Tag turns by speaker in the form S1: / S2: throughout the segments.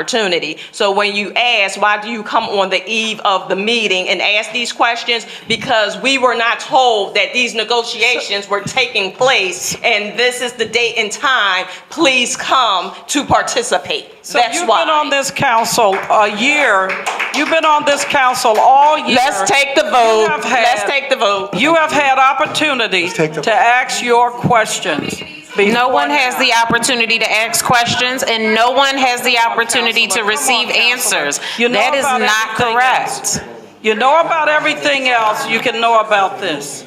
S1: opportunity. So when you ask, why do you come on the eve of the meeting and ask these questions? Because we were not told that these negotiations were taking place and this is the date and time, please come to participate.
S2: So
S1: That's
S2: you've been on
S1: why.
S2: this council a year, you've been on this council all year.
S1: Let's take the vote.
S2: have had-
S1: Let's take the vote.
S2: You have had opportunities
S3: take the-
S2: to ask your questions.
S4: No one has the opportunity to ask questions, and no one has the opportunity to receive answers.
S2: You know
S4: That is
S2: about
S4: not
S2: everything else.
S4: correct.
S2: You know about everything else, you can know about this.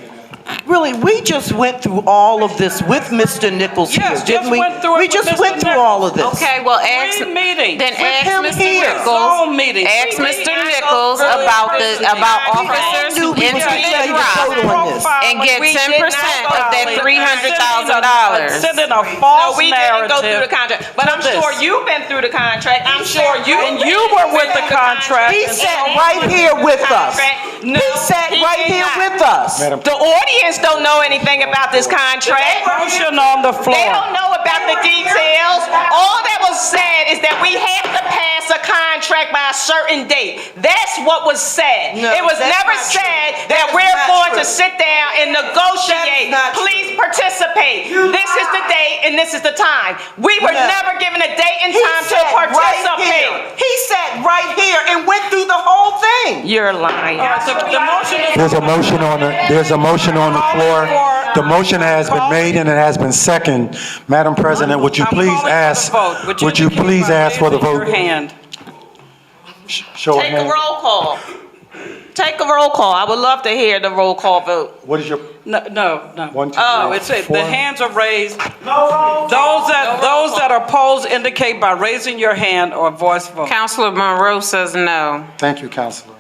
S5: Really, we just went through all of this with Mr. Nichols here,
S2: Yes,
S5: didn't
S2: just
S5: we?
S2: went through it
S5: we
S2: with
S5: just
S2: Mr.
S5: went through all of this.
S4: Okay, well, ask,
S2: Three meetings.
S4: then
S2: With
S4: ask
S5: him
S4: Mr.
S5: here.
S2: All
S4: Nichols.
S2: meetings.
S4: Ask
S2: We
S4: Mr.
S2: did not
S4: Nichols
S2: go through
S4: about the,
S2: this.
S4: about
S2: We all
S4: officers
S5: knew
S4: who
S5: we
S4: entered
S5: were
S4: the
S5: gonna
S4: drive
S5: vote on this.
S4: and get
S1: We did not
S4: ten percent of that
S1: violate the
S4: three hundred thousand
S2: $300,000.
S4: dollars.
S2: Sending a false
S1: No, we didn't go through the
S2: narrative.
S1: contract, but I'm
S2: this.
S1: sure you've been through the contract. I'm sure you.
S2: And you were with the contract.
S5: He sat right here with us.
S1: No,
S5: He sat
S1: he
S5: right
S1: did
S5: here
S1: not.
S5: with us.
S1: The audience don't know anything about this contract.
S2: Motion on the
S1: They
S2: floor.
S1: don't know about the details. All that was said is that we have to pass a contract by a certain date. That's what was said.
S5: No,
S1: It was
S5: that's
S1: never
S5: not true.
S1: said
S5: That
S1: that
S5: is
S1: we're
S5: not
S1: going to
S5: true.
S1: sit down and negotiate.
S5: not true.
S1: Please participate. This is the date and this is the time. We were
S5: No.
S1: never given a date and
S5: He
S1: time to
S5: sat right
S1: participate.
S5: here. He sat right here and went through the whole thing.
S1: You're lying.
S2: The the motion is
S3: There's a motion on the, there's a motion on the floor. The motion has been made and it has been seconded. Madam President, would you
S2: I'm
S3: please
S2: calling for the
S3: ask,
S2: vote.
S3: would you
S2: indicate
S3: please
S2: by
S3: ask for the
S2: raising
S3: vote?
S2: Your hand.
S3: Show of
S1: Take a
S3: hands.
S1: roll call. Take a roll call. I would love to hear the roll call vote.
S3: What is your,
S2: No, no, no.
S3: One, two,
S2: Oh,
S3: three,
S2: it's, it.
S3: four.
S2: the hands are raised. Those that, those that are opposed indicate by raising your hand or voice vote.
S4: Counselor Monroe says no.
S3: thank you, Counselor.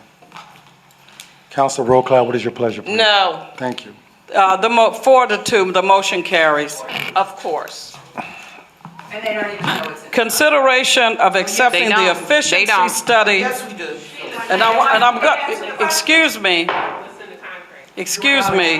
S3: Counselor Roquel, what is your pleasure? please?
S1: No,
S3: Thank you.
S2: Uh, the mo, four to two, the motion carries.
S1: of course.
S2: Consideration of accepting
S4: don't.
S2: the
S4: They
S2: efficiency
S4: don't.
S2: study.
S5: we do.
S2: And I, wa- and I'm go, excuse me. Excuse me.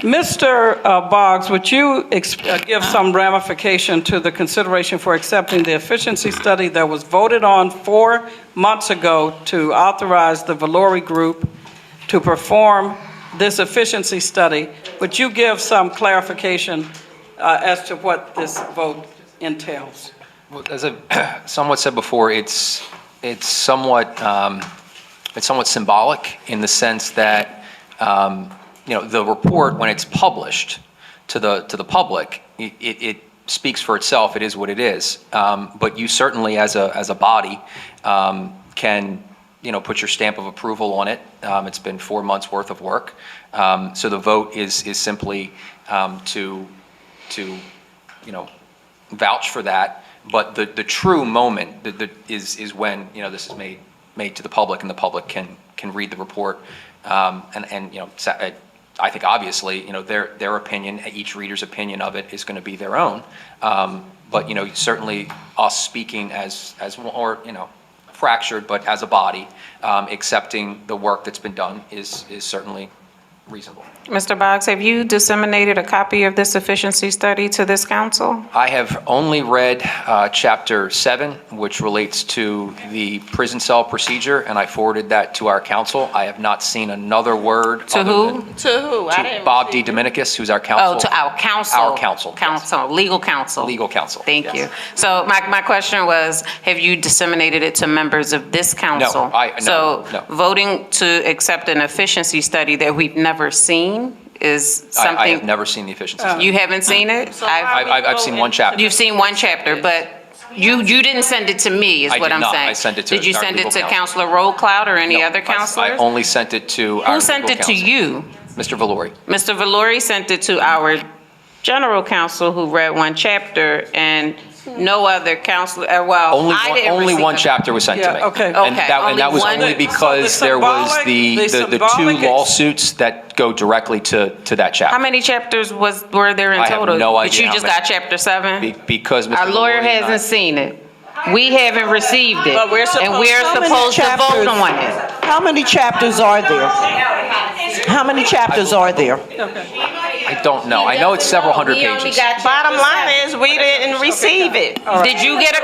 S2: Mr. uh, Boggs, would you ex- uh, give some ramification to the consideration for accepting the efficiency study that was voted on four months ago to authorize the Valori Group to perform this efficiency study? Would you give some clarification uh, as to what this vote entails?
S6: Well, as I somewhat said before, it's, it's somewhat, um, it's somewhat symbolic in the sense that, um, you know, the report, when it's published to the, to the public, it, it it speaks for itself, it is what it is. Um, But you certainly, as a, as a body, um, can, you know, put your stamp of approval on it. Um, It's been four months' worth of work. Um, So the vote is, is simply um, to, to, you know, vouch for that, but the, the true moment that, that is, is when, you know, this is made, made to the public and the public can, can read the report. Um, and, and, you know, sa- I- I think obviously, you know, their, their opinion, each reader's opinion of it is going to be their own. Um, but, you know, certainly us speaking as, as, one- or, you know, fractured, but as a body, um, accepting the work that's been done is, is certainly reasonable.
S4: Mr. Boggs, have you disseminated a copy of this efficiency study to this council?
S6: I have only read uh, Chapter 7, which relates to the prison cell procedure, and I forwarded that to our council. I have not seen another word.
S4: To
S6: other
S4: who?
S6: than-
S1: To who? I
S6: To
S1: didn't
S6: Bob D.
S1: receive-
S6: Dominicus, who's our council.
S4: Oh, to our council.
S6: Our council, yes.
S4: Council, legal counsel.
S6: Legal counsel,
S4: Thank you. So my, my question was, have you disseminated it to members of this council?
S6: I- no, no.
S4: So voting to accept an efficiency study that we've never seen is
S6: I-
S4: something. Oh.
S6: I have never seen the efficiency. study.
S4: You haven't seen it?
S6: I've- I've I've seen one chapter.
S4: You've seen one chapter, but you, you didn't send it to me, is
S6: I
S4: what
S6: did
S4: I'm
S6: not.
S4: saying.
S6: I sent it to
S4: Did you
S6: our
S4: send it
S6: legal
S4: to
S6: counsel.
S4: Counselor Rollcloud or any
S6: No,
S4: other
S6: I- I
S4: counselors?
S6: only sent it to our
S4: Who
S6: legal
S4: sent it to
S6: counsel.
S4: you?
S6: Mr. Valori.
S4: Mr. Valori sent it to our general counsel who read one chapter and no other counselor, uh, well,
S6: Only
S4: I
S6: one-
S4: didn't
S6: Only
S4: receive
S6: one
S4: them.
S6: chapter was sent
S2: Yeah,
S6: to me.
S2: okay.
S6: And
S4: Okay,
S6: that- And that
S4: only
S6: was
S4: one-
S6: only
S4: So the
S6: because there was
S2: symbolic-
S6: the,
S2: the
S6: the the two
S2: symbolic-
S6: lawsuits that go directly to, to that chapter.
S4: How many chapters was, were there in
S6: I have
S4: total?
S6: no
S4: But
S6: idea
S4: you
S6: how
S4: just
S6: many.
S4: got chapter
S6: Be-
S4: seven?
S6: Because Mr.
S4: Our
S6: Valori
S4: lawyer
S6: and I-
S4: hasn't seen it. We haven't received it.
S1: But we're
S4: And
S1: supposed-
S4: we're
S1: How
S5: many
S4: supposed to vote
S5: chapters?
S4: on it.
S5: How many chapters are there? How many chapters are there?
S6: I don't know. I know it's several hundred
S4: He only
S6: pages.
S4: got you
S1: Bottom
S4: to
S1: line
S4: seven.
S1: is, we didn't receive it.
S4: Did you get a